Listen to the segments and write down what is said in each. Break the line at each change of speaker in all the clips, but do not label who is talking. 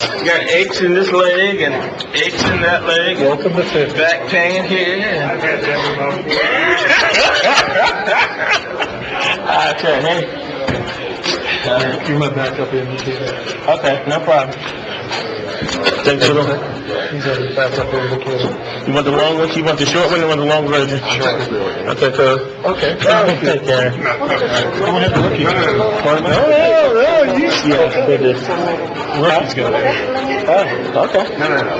You got aches in this leg and aches in that leg.
Welcome to fifty.
Back pain here. and- Okay, hey,
Do my backup in too.
Uh, okay, no problem. Take the little,
He's on the backup indicator.
you want the long one, you want the short one, or you want the long version? uh, Okay, so.
Okay.
Take care.
I'm gonna have to look you.
No, no, no, you. Yeah, they did. Rookie's gonna. Oh, okay.
No, no, no.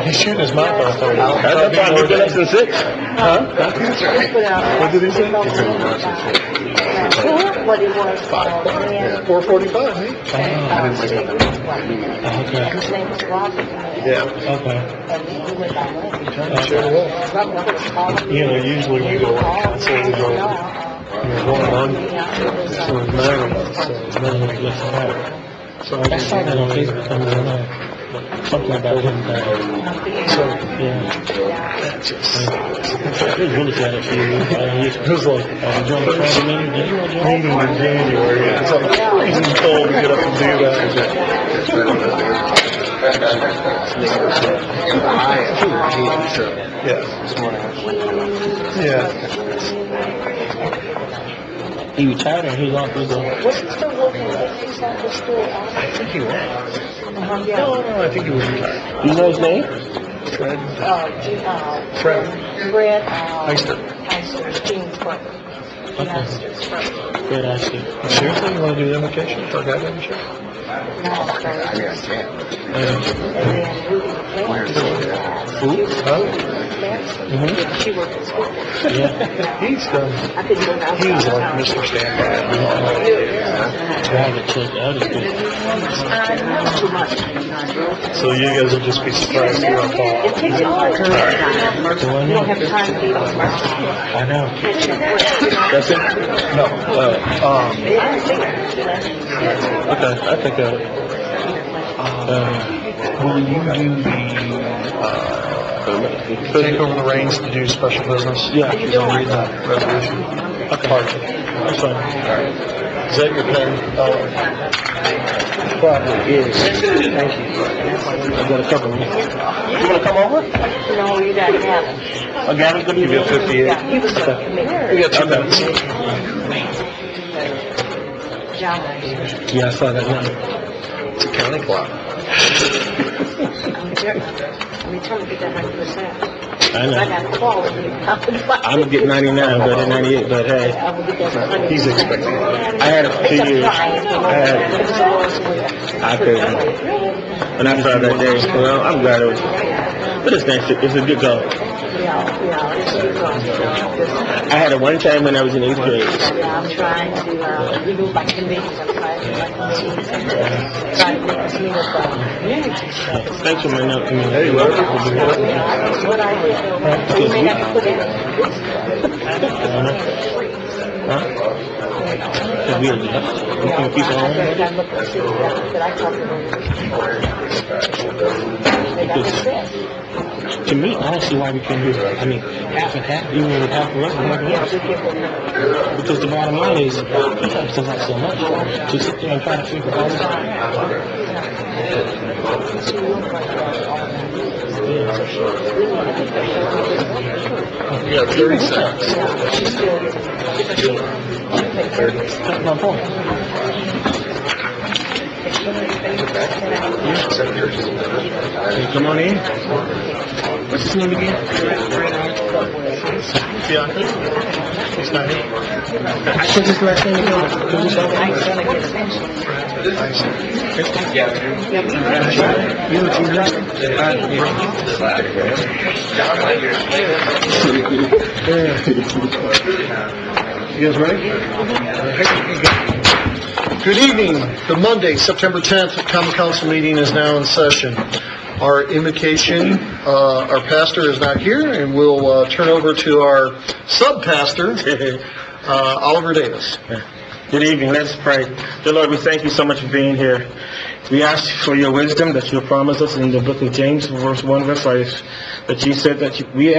He's shooting his mouth off.
That's no problem, we've been up since six. Huh?
That's right. What did he say?
What he was. Five.
Four forty-five, eh? Okay.
His name was Robert.
Yeah.
Okay,
And he went by name.
Sure will.
Robert was called.
you know, usually we go like that, so we go,
You're going on.
so we're married, so nobody gets mad. So I just saw that on Facebook, I don't know, something about him, uh, yeah. That just. It really got a few, uh, it was like, uh, John Travolta, did you want to? Only in January,
It's like freezing cold to get up and do that. Yeah. Yeah.
He retired or he lost his, uh,
Was he still working? He's not just still
I think he was.
out.
No,
Uh-huh. Yeah.
no, Oh, I think he was retired.
you know his name?
Fred.
Uh, G- uh,
Fred.
Brad, uh.
Heister.
Heister, Gene's brother. Gene Heister's brother.
Fred Ashton.
Seriously, you want to do invocation for a guy named Sheriff?
Now, so,
Uh,
and then Ruby McClendon.
Who? Huh?
mhm,
She worked at school.
yeah.
He's done,
I couldn't go down.
he was like Mr. Standby.
Drive a chick out of school.
Uh, too much.
So you guys will just be surprised here on
It
fall.
takes all your time.
So I
You don't
know,
have time to be on mercy.
I know.
That's it? No, uh, um, okay, I think, uh, uh, will you do the, uh, take over the reins to do special business?
Yeah.
You don't read that resolution? Okay. That's fine. Is that your pen? Uh,
Probably is. Thank you. I've got a couple of them.
You wanna come over?
No, you gotta have it.
I got it, give you a fifty-eight.
Yeah, he was a
we
committee.
got two minutes.
John was.
Yeah, I saw that one.
It's a county clock.
I'm trying to get that hundred percent.
I
I
know.
got a call.
I'm gonna get ninety-nine, but at ninety-eight, but hey,
I will get that hundred.
He's expecting it.
I had it for two years. I couldn't. When I saw that day, well, I'm glad it was, but it's nice, it's a good goal.
Yeah, yeah, it's a good one, you know, it's-
I had it one time when I was in eighth grade.
I'm trying to, uh, remove my committees, I'm trying to, my committees, and try to make this mean as a community show.
Thanks for my note, I mean.
Hey,
You
welcome.
know, that's what I would do. You may have to put in.
Huh? It's weird, you know? You can keep on.
Yeah, I look and see that I talk to.
To me, honestly, why we can do it, I mean, half and half, even with half the rest, half and half. Because the bottom line is, sometimes there's not so much to sit there and try to figure out.
You got thirty seconds.
That's my point. Hey, come on in. What's his name again?
Yeah. He's not here.
I took his last name again. Could you tell me? You know, Junior.
You guys ready? Good evening. The Monday, September 10th Common Council meeting is now in session. Our invocation, uh, our pastor is not here, and we'll, uh, turn over to our sub-pastor, uh, Oliver Davis.
Good evening, let's pray. Dear Lord, we thank you so much for being here. We ask for your wisdom that you promised us in the book of James, verse 1, verse 5, that you said that you- we